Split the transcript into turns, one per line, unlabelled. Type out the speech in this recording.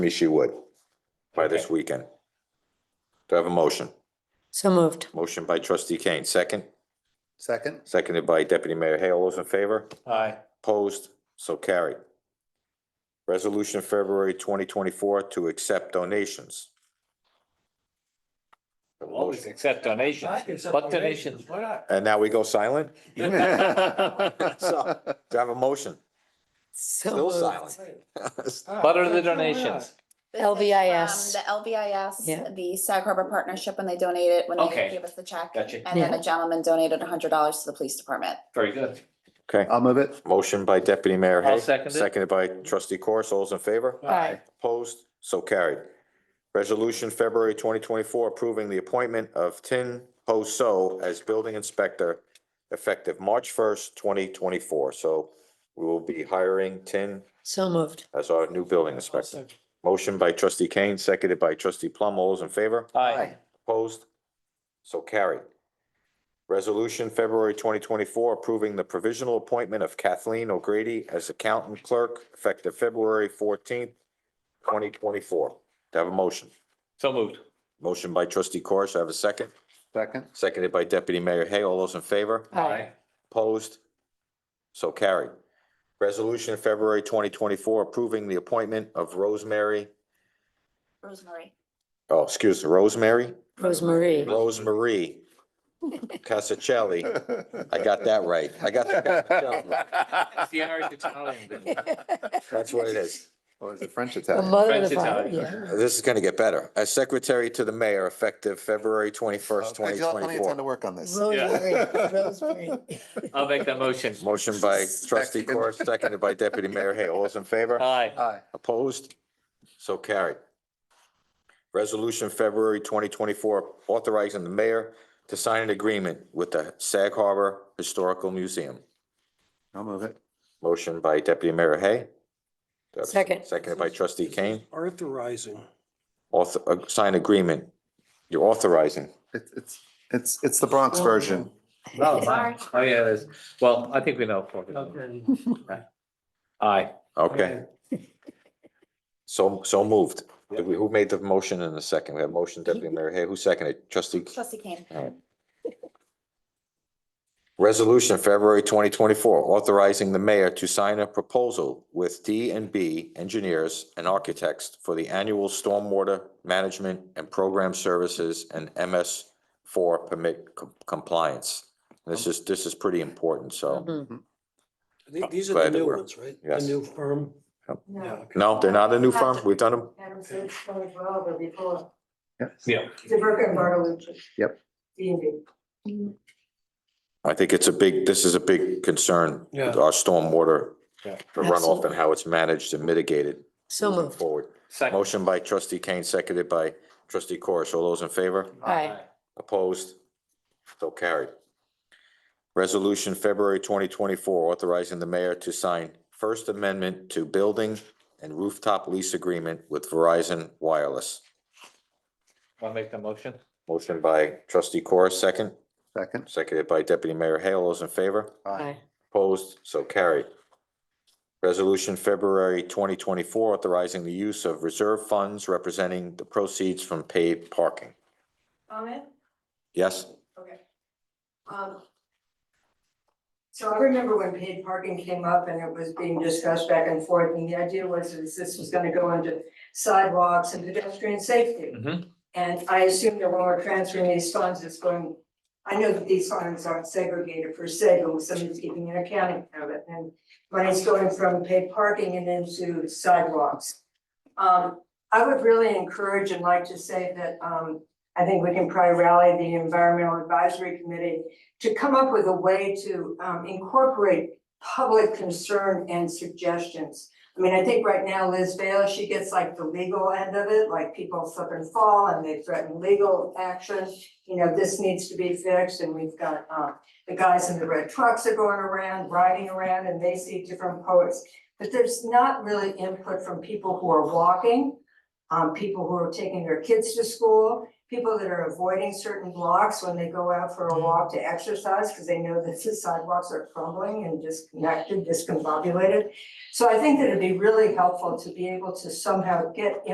me she would by this
Okay.
weekend. Do I have a motion?
So moved.
Motion by trustee Kane, second,
Second?
seconded by deputy mayor Hale. All Those in favor?
Aye.
Opposed? So carried. Resolution of February twenty twenty-four to accept donations. Have a
Always
motion.
accept donations, but donations.
Why not?
And now we go silent?
Butter
So, do I have a motion?
So
Still
moved.
silent.
the donations.
This is
LVIS.
from The
Yeah.
LVIS, the Sag Harbor Partnership, when they donated, when
Okay.
they gave us the check.
Gotcha.
And then
Yeah.
a gentleman donated hundred dollars to the police department.
Very good.
Okay,
I'll move it.
motion by deputy mayor
I'll
Hay,
second it.
seconded by trustee Corus. All those in favor?
Aye.
Opposed? So carried. Resolution February twenty twenty-four approving the appointment of Tin Ho So as building inspector effective March first, twenty twenty-four. So we will be hiring Tin
So moved.
as our new building inspector. Motion by trustee Kane, seconded by trustee Plum. All those in favor?
Aye.
Opposed? So carried. Resolution February twenty twenty-four approving the provisional appointment of Kathleen O'Grady as accountant clerk effective February fourteenth, twenty twenty-four. Do I have a motion?
So moved.
Motion by trustee Corish, I have a second.
Second?
Seconded by deputy mayor Hay. All those in favor? Opposed? So carried. Resolution February twenty twenty-four approving the appointment of Rosemary,
Rosemary.
oh, excuse, Rosemary?
Rosemarie.
Rosemarie Casacelli. I got that right. I got, the-
It's the Irish Italian. thing.
that's what it is.
Or is it French
The
Italian?
mother of
French
the fire,
Italian.
yeah.
This is gonna get better. As secretary to the mayor effective February twenty-first,
Okay,
twenty
you'll have Plenty of time to
twenty-four.
work on this.
Rosemarie, Rosemary.
I'll make that motion.
Motion by trustee Corr, seconded by deputy mayor Hay. All those in favor?
Aye.
Aye.
Opposed? So carried. Resolution February twenty twenty-four authorizing the mayor to sign an agreement with the Sag Harbor Historical Museum.
I'll move it.
Motion by deputy mayor Hay.
Second.
Seconded by trustee Kane.
Authorizing.
author, uh, sign agreement, you're authorizing.
It's, it's, it's, it's the Bronx version.
Sorry.
Oh, yeah, it is. Well, I think we know. Aye.
Okay, so, so moved. Did we- Who made the motion in the second? We have motion deputy mayor Hay, who seconded? Trustee.
Trustee Kane.
Resolution, February twenty twenty-four, authorizing the mayor to sign a proposal with D and B engineers and architects for the annual stormwater management and program services and MS four permit com- compliance. This is, this is pretty important, so.
Mhm.
I think these
Glad
are
that
the new
we're-
ones, right?
Yes.
The new firm.
Yep.
Yeah, okay.
No, they're not a new firm. We've done them.
Adam said it's going to grow over before.
Yeah.
It's a Burke and Bartolucci.
Yep.
D and B.
I think it's a big, this is a big concern, with
Yeah.
our stormwater,
Yeah.
the runoff and how it's managed and mitigated
So
moving
moved.
forward.
Second.
Motion by trustee Kane, seconded by trustee Corish. All those in favor?
Aye.
Opposed? So carried. Resolution, February twenty twenty-four, authorizing the mayor to sign First Amendment to Building and Rooftop Lease Agreement with Verizon Wireless.
I'll make the motion.
Motion by trustee Corish, second,
Second?
seconded by deputy mayor Hale. All those in favor?
Aye.
Opposed, so carried. Resolution February twenty twenty-four authorizing the use of reserve funds representing the proceeds from paid parking.
Comment?
Yes,
Okay. Um. So I remember when paid parking came up and it was being discussed back and forth, and the idea was that this was gonna go into sidewalks and pedestrian safety.
Mhm.
And I assume that when we're transferring these funds, it's going, I know that these funds aren't segregated per se, but somebody's keeping an accounting of it, and money's going from paid parking and into sidewalks. Um, I would really encourage and like to say that, um, I think we can probably rally the environmental advisory committee to come up with a way to um, incorporate public concern and suggestions. I mean, I think right now Liz Vale, she gets like the legal end of it, like people slip and fall and they threaten legal action. You know, this needs to be fixed and we've got um, the guys in the red trucks are going around, riding around and they see different poets. But there's not really input from people who are walking, um, people who are taking their kids to school people that are avoiding certain blocks when they go out for a walk to exercise, because they know that the sidewalks are crumbling and disconnected, discombobulated. So I think that it'd be really helpful to be able to somehow get